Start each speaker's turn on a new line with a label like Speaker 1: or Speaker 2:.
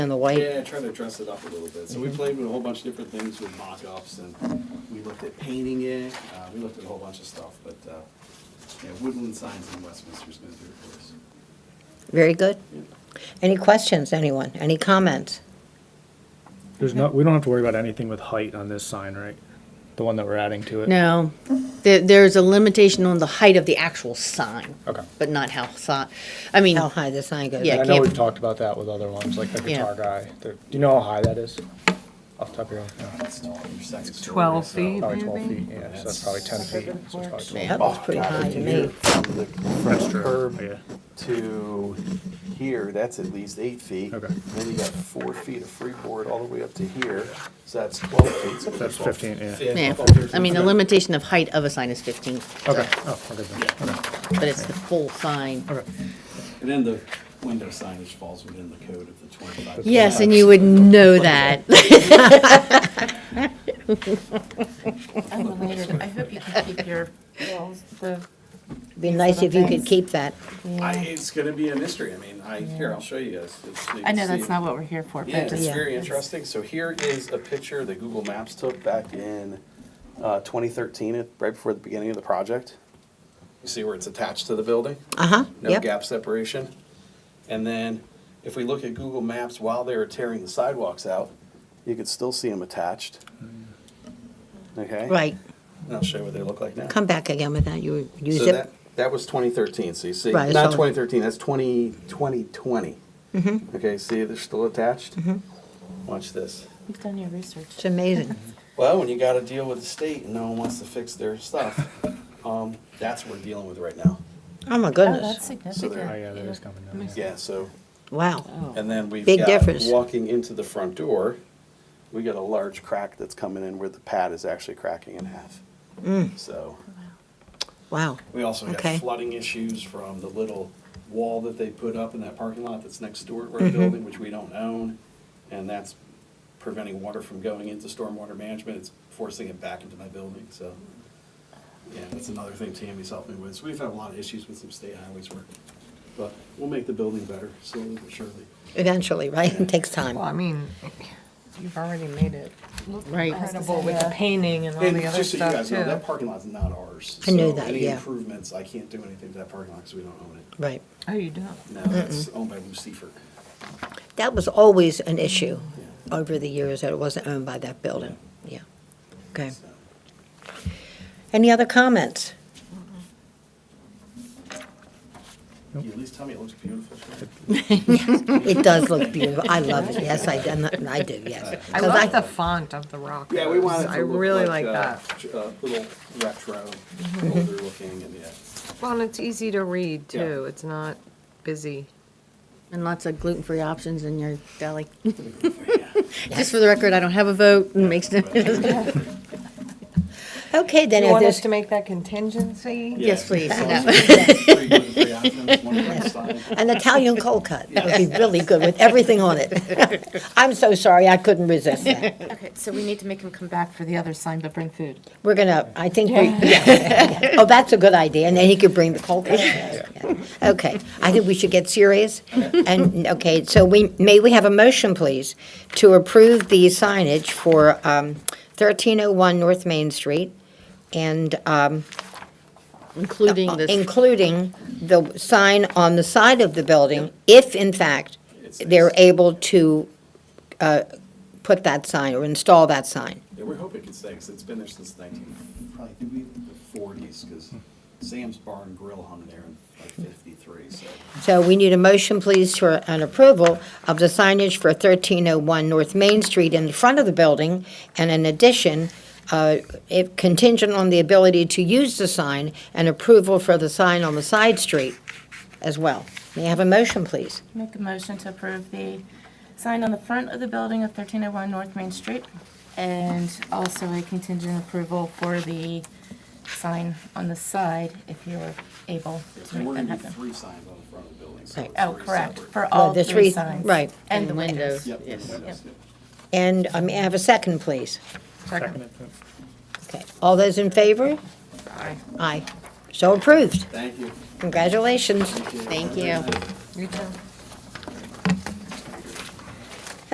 Speaker 1: and the white.
Speaker 2: Yeah, I tried to dress it up a little bit. So
Speaker 3: Mm-hmm.
Speaker 2: we played with a whole bunch of different things with mock-ups and we looked at painting it, uh, we looked at a whole bunch of stuff, but, uh, yeah, woodland signs in Westminster's gonna do it for us.
Speaker 1: Very good. Any questions, anyone? Any comments?
Speaker 4: There's not, we don't have to worry about anything with height on this sign, right? The one that we're adding to it?
Speaker 3: No, there, there's a limitation on the height of the actual sign,
Speaker 4: Okay.
Speaker 3: but not how si, I mean,
Speaker 1: How high the sign goes?
Speaker 3: Yeah,
Speaker 4: I know
Speaker 3: can't-
Speaker 4: we've talked about that with other ones, like the
Speaker 3: Yeah.
Speaker 4: guitar guy. The- Do you know how high that is? Off the top of your head? No.
Speaker 2: It's tall, your second story, uh, oh,
Speaker 5: 12
Speaker 2: so-
Speaker 5: feet,
Speaker 4: Probably twelve feet,
Speaker 5: maybe?
Speaker 4: yeah, so that's probably ten feet. so it's probably 12.
Speaker 1: That looks
Speaker 6: Oh,
Speaker 1: pretty high to me.
Speaker 6: From the front curb
Speaker 4: Yeah.
Speaker 6: to here, that's at least eight feet.
Speaker 4: Okay.
Speaker 6: Then you got four feet of freeboard all the way up to here, so that's twelve feet. So
Speaker 4: That's fifteen, yeah.
Speaker 3: yeah, I mean, the limitation of height of a sign is fifteen. so-
Speaker 4: Okay, oh, okay then, okay,
Speaker 3: But it's the full sign.
Speaker 4: okay.
Speaker 2: And then the window signage falls within the code of the twenty-five.
Speaker 3: Yes, and you would know that.
Speaker 5: Unrelated, I hope you can keep your bills, the
Speaker 1: Be nice if you could
Speaker 5: Thanks.
Speaker 1: keep that.
Speaker 2: I, it's gonna be a mystery. I mean, I, here, I'll show you guys. It's- you
Speaker 5: I know
Speaker 2: can
Speaker 5: that's
Speaker 2: see-
Speaker 5: not what we're here for,
Speaker 2: Yeah,
Speaker 5: but
Speaker 2: it's
Speaker 5: just,
Speaker 1: Yeah.
Speaker 2: very
Speaker 5: it's-
Speaker 2: interesting.
Speaker 6: Interesting, so here is a picture that Google Maps took back in, uh, twenty thirteen, right before the beginning of the project. You see where it's attached to the building?
Speaker 1: Uh-huh,
Speaker 6: no
Speaker 1: yep.
Speaker 6: gap separation. And then if we look at Google Maps while they were tearing the sidewalks out, you could still see them attached. Okay?
Speaker 1: Right,
Speaker 6: And I'll show you what they look like now.
Speaker 1: come back again with that, you would use
Speaker 6: So
Speaker 1: it.
Speaker 6: that, that was 2013, so you see,
Speaker 1: Right,
Speaker 6: not
Speaker 1: it's all-
Speaker 6: 2013, that's 20, 2020.
Speaker 1: Mm-hmm.
Speaker 6: Okay, see, they're still attached? Watch this.
Speaker 5: you've done your research.
Speaker 1: It's amazing.
Speaker 6: Well, when you gotta deal with the state and no one wants to fix their stuff, um, that's what we're dealing with right now.
Speaker 1: Oh, my
Speaker 5: Oh,
Speaker 1: goodness.
Speaker 5: that's significant.
Speaker 4: Oh, yeah, that is coming down. yeah.
Speaker 6: Yeah, so
Speaker 1: Wow.
Speaker 5: oh.
Speaker 6: And then we've
Speaker 1: Big
Speaker 6: got
Speaker 1: difference.
Speaker 6: walking into the front door, we got a large crack that's coming in where the pad is actually cracking in half.
Speaker 1: Mm.
Speaker 6: So
Speaker 1: Wow.
Speaker 6: we also got
Speaker 1: Okay.
Speaker 6: flooding issues from the little wall that they put up in that parking lot that's next door to our
Speaker 1: Mm-hmm.
Speaker 6: building, which we don't own. And that's preventing water from going into stormwater management. It's forcing it back into my building. So yeah, that's another thing Tammy's helping me with. So we've had a lot of issues with some state highways work. But we'll make the building better slowly but surely.
Speaker 1: Eventually, right? It takes
Speaker 5: Well, I
Speaker 1: time.
Speaker 5: mean, you've already made it look
Speaker 3: Right.
Speaker 5: incredible with the painting and all
Speaker 2: And
Speaker 5: the other
Speaker 2: just so you
Speaker 5: stuff
Speaker 2: guys know,
Speaker 5: too.
Speaker 2: that parking lot's not ours.
Speaker 1: I knew
Speaker 2: So
Speaker 1: that,
Speaker 2: Any
Speaker 1: yeah.
Speaker 2: improvements, I can't do anything to that parking lot because we don't own it.
Speaker 1: Right.
Speaker 5: Oh, you don't?
Speaker 1: Mm-hmm.
Speaker 6: Now
Speaker 2: No, it's owned by Lucifer.
Speaker 1: That was always an issue over the years, that it wasn't owned by that building. Yeah. Okay.
Speaker 6: so.
Speaker 1: Any other comments?
Speaker 2: You at least tell me it looks beautiful.
Speaker 1: It does look beautiful. I love it. Yes, I do, I do, yes.
Speaker 5: I
Speaker 1: 'Cause
Speaker 5: love the font of the rock.
Speaker 2: Yeah, we want it
Speaker 5: rose.
Speaker 2: to
Speaker 5: I
Speaker 2: look
Speaker 5: really like
Speaker 2: uh,
Speaker 5: that.
Speaker 2: j- uh, little retro, older looking and yeah.
Speaker 5: Well, and it's easy to read
Speaker 2: Yeah.
Speaker 5: too. It's not busy.
Speaker 3: And lots of gluten-free options in your deli.
Speaker 2: Yeah.
Speaker 3: Just for the record, I don't have a vote, and makes no,
Speaker 1: Okay, then
Speaker 5: You
Speaker 1: if
Speaker 5: want us
Speaker 1: there's,
Speaker 5: to make that contingency?
Speaker 3: yes, please.
Speaker 2: Yeah.
Speaker 3: No.
Speaker 2: Three good- three options, one kind of style.
Speaker 1: an Italian cold cut, that would be really good with everything on it. I'm so sorry, I couldn't resist that.
Speaker 5: Okay, so we need to make him come back for the other sign, but bring food.
Speaker 1: We're gonna, I think, we- yeah. oh, that's a good idea, and then he could bring the cold cut. Okay, I think we should get serious. And, okay, so we, may we have a motion, please, to approve the signage for um, 1301 North Main Street and um,
Speaker 3: Including this,
Speaker 1: Uh, including the sign on the side of the building, if in fact they're able to uh, put that sign or install that sign.
Speaker 2: Yeah, we hope it can stay because it's been there since nineteen, probably did we- the forties because Sam's Bar and Grill hung there in like fifty-three, so.
Speaker 1: So we need a motion, please, for an approval of the signage for 1301 North Main Street in the front of the building, and in addition, uh, if contingent on the ability to use the sign, and approval for the sign on the side street as well. May I have a motion, please?
Speaker 7: Make a motion to approve the sign on the front of the building of 1301 North Main Street, and also a contingent approval for the sign on the side, if you were able to
Speaker 2: And
Speaker 7: make
Speaker 2: we're
Speaker 7: that
Speaker 2: gonna do
Speaker 7: happen.
Speaker 2: three signs on the front of the building, so.
Speaker 1: Right.
Speaker 2: it's
Speaker 7: Oh,
Speaker 2: three
Speaker 7: correct,
Speaker 2: separate.
Speaker 7: for all
Speaker 1: the
Speaker 7: three
Speaker 1: three-
Speaker 7: signs.
Speaker 1: right.
Speaker 7: And the
Speaker 3: windows.
Speaker 2: Yep.
Speaker 7: windows.
Speaker 2: and
Speaker 3: Yes.
Speaker 2: windows, yeah.
Speaker 1: And um, may I have a second, please?
Speaker 4: Second.
Speaker 1: Okay, all those in favor? Aye. Aye. So approved.
Speaker 2: Thank you.
Speaker 1: Congratulations.
Speaker 3: thank you.